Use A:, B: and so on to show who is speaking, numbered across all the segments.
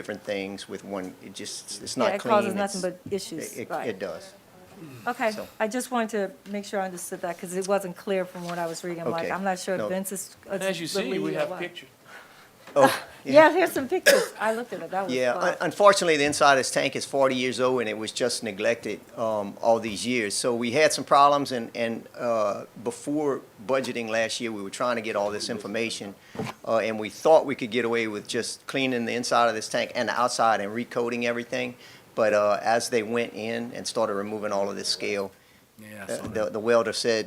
A: different things with one, it just, it's
B: Yeah,
A: not
B: it
A: clean.
B: causes nothing but
A: it's-
B: issues,
A: it-
B: right.
A: It does.
B: Okay,
A: So-
B: I just wanted to make sure I understood that, because it wasn't clear from what I was reading. I'm like,
A: Okay,
B: I'm not sure if
A: no.
B: Vince is. uh,
C: And As you see, we have pictures.
A: Oh,
B: Yeah, here's some pictures. I looked at it, that was
A: yeah.
B: fun.
A: un- Unfortunately, the inside of this tank is 40 years old, and it was just neglected um, all these years. So we had some problems, and, and uh, before budgeting last year, we were trying to get all this information, uh, and we thought we could get away with just cleaning the inside of this tank and the outside and recoding everything. But uh, as they went in and started removing all of this scale,
C: Yeah,
A: Uh, the, the welder said,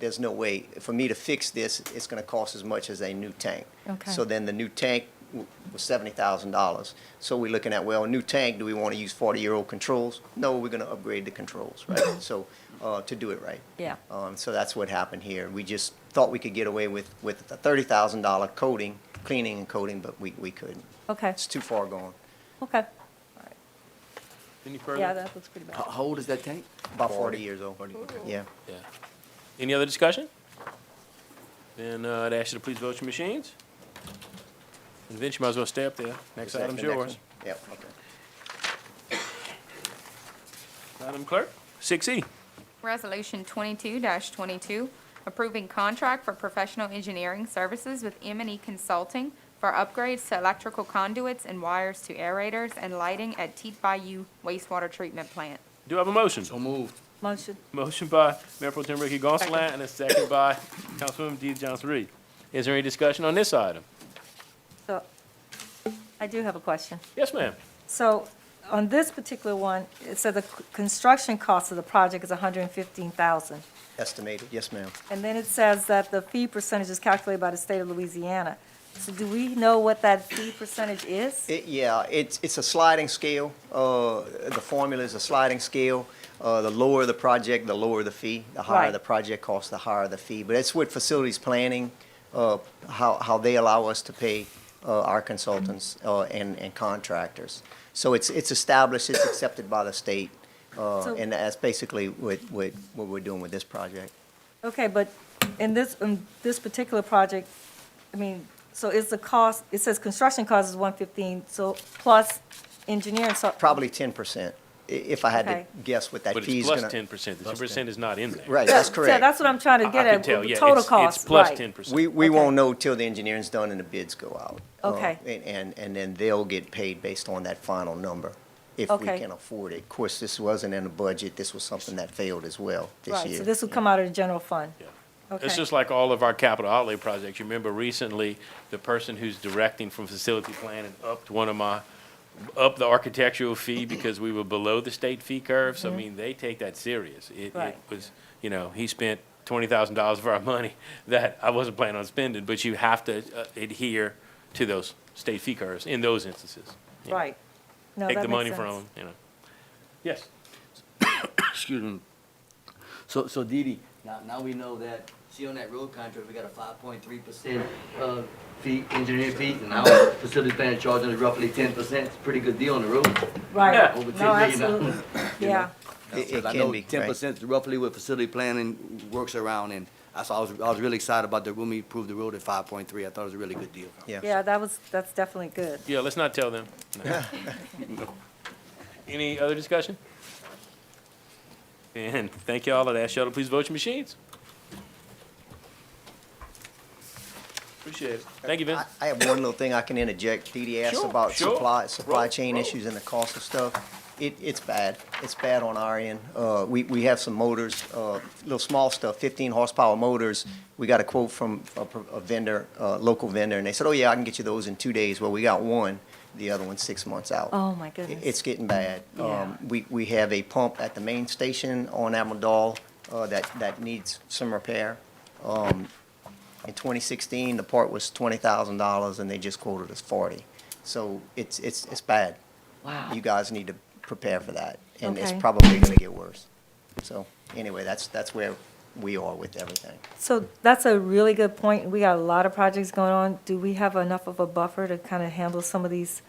A: there's no way, for me to fix this, it's gonna cost as much as a new tank.
B: Okay.
A: So then the new tank w- was seventy thousand dollars. So we're looking at, well, new tank, do we wanna use forty-year-old controls? No, we're gonna upgrade the controls, right? So, uh, to do it right.
B: Yeah.
A: Um, so that's what happened here. We just thought we could get away with, with a thirty thousand dollar coating, cleaning and coating, but we, we couldn't.
B: Okay,
A: It's too far gone,
B: okay.
C: Any further?
B: Yeah, that looks pretty bad.
A: Uh-huh.
D: How how old is that tank?
A: about forty years old, yeah.
C: Yeah. Any other discussion? Then uh, I'd ask you to please vote your machines. And Vince, you might as well stay up there. Next
A: Is that
C: item's
A: the next
C: yours.
A: one? Yep, okay.
C: Madam Clerk, six E.
E: Resolution 22-22, approving contract for professional engineering services with m and E Consulting for upgrades to electrical conduits and wires to aerators and lighting at Teet Bayou wastewater treatment plant.
C: Do I have a motion?
D: moved.
B: Motion,
C: Motion by Mayor Pro Tem Ricky Gonsalas and a second by Councilwoman Dee Johnson Reed. Is there any discussion on this item?
B: so, I do have a question.
C: Yes, ma'am.
B: So on this particular one, it said the c- construction cost of the project is 115000
A: Estimated, yes, ma'am.
B: And then it says that the fee percentage is calculated by the state of Louisiana. So do we know what that fee percentage is?
A: It, yeah, it's, it's a sliding scale. Uh, the formula is a sliding scale. Uh, the lower the project, the lower the fee. The higher
B: Right.
A: the project costs, the higher the fee. But it's with facilities planning, uh, how, how they allow us to pay, uh, our consultants, uh, and, and contractors. So it's, it's established, it's accepted by the state, uh,
B: So-
A: and that's basically what, what, what we're doing with this project.
B: Okay, but in this, in this particular project, I mean, so is the cost, it says construction cost is one fifteen, so plus engineering, so.
A: Probably ten percent, i- if I had to
B: Okay.
A: guess what that
C: But
A: fee's
C: it's
A: gonna.
C: plus ten percent. The
A: Plus
C: two
A: 10.
C: percent is not in there.
A: Right, that's
B: Yeah,
A: correct.
B: that's what I'm trying to
C: I- I
B: get
C: can
B: at,
C: tell,
B: the
C: yeah,
B: total
C: it's-
B: cost,
C: It's plus
B: right.
C: ten percent.
A: We, we
B: Okay.
A: won't know till the engineering's done and the bids go out. Uh,
B: Okay.
A: And, and, and then they'll get paid based on that final number, if we
B: Okay.
A: can afford it. Of course, this wasn't in the budget, this was something that failed as well this
B: Right,
A: year.
B: so this would come out of the general fund.
C: It's
B: Okay.
C: just like all of our capital outlay projects. You remember recently, the person who's directing from facility planning upped one of my, up the architectural fee because we were below the state fee curve. So I mean, they take that serious. It, it
B: Mm-hmm. Right.
C: was, you know, he spent twenty thousand dollars of our money that I wasn't planning on spending, but you have to uh, adhere to those state fee curves in those instances. you know.
B: Right. No,
C: Take
B: that
C: the
B: makes
C: money
B: sense.
C: from, 'em, you know. Yes.
D: Excuse me. So, so Dee Dee, now, now we know that, see on that road contract, we got a five point three percent, uh, fee, engineer fees, and our facility plan charging us roughly ten percent, it's a pretty good deal on the road.
C: Yeah.
B: Right,
D: Over
B: no,
D: 10 million
B: absolutely, yeah,
A: It- it
D: Because I
A: can
D: know
A: be, right.
D: Ten percent roughly what facility planning works around, and I saw, I was, I was really excited about the, when we approved the road at five point three, I thought it was a really good deal.
B: yeah, that was, that's definitely good.
C: Yeah, let's not tell them. No. Any other discussion? And thank y'all. I'd ask y'all to please vote your machines. Appreciate it. Thank you, Vince.
A: I I have one little thing I can interject. DD asked
C: Sure,
A: about
C: sure.
A: supply, supply
C: Roll,
A: chain
C: roll.
A: issues and the cost of stuff. It, it's bad. It's bad on our end. Uh, we, we have some motors, uh, little small stuff, fifteen horsepower motors. We got a quote from a pro- a vendor, uh, local vendor, and they said, oh yeah, I can get you those in two days. Well, we got one, the other one's six months out.
B: Oh, my
A: It-
B: goodness.
A: It's getting bad.
B: Yeah.
A: Um, We, we have a pump at the main station on Amador uh, that, that needs some repair. Um, In 2016, the part was $20,000 and they just quoted us 40. So it's, it's, it's bad. Wow. You guys need to prepare for that. And it's
B: Okay.
A: probably going to get worse. So anyway, that's, that's where we are with everything.
B: So that's a really good point. We got a lot of projects going on. Do we have enough of a buffer to kind of handle some of these,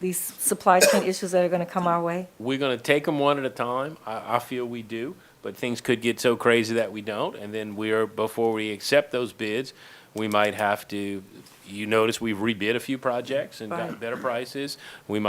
B: these supply chain issues that are going to come our way?
C: We're gonna take them one at a time. I, I feel we do, but things could get so crazy that we don't. And then we are, before we accept those bids, we might have to, you notice we've rebid a few projects and got
B: Right.
C: better prices. We might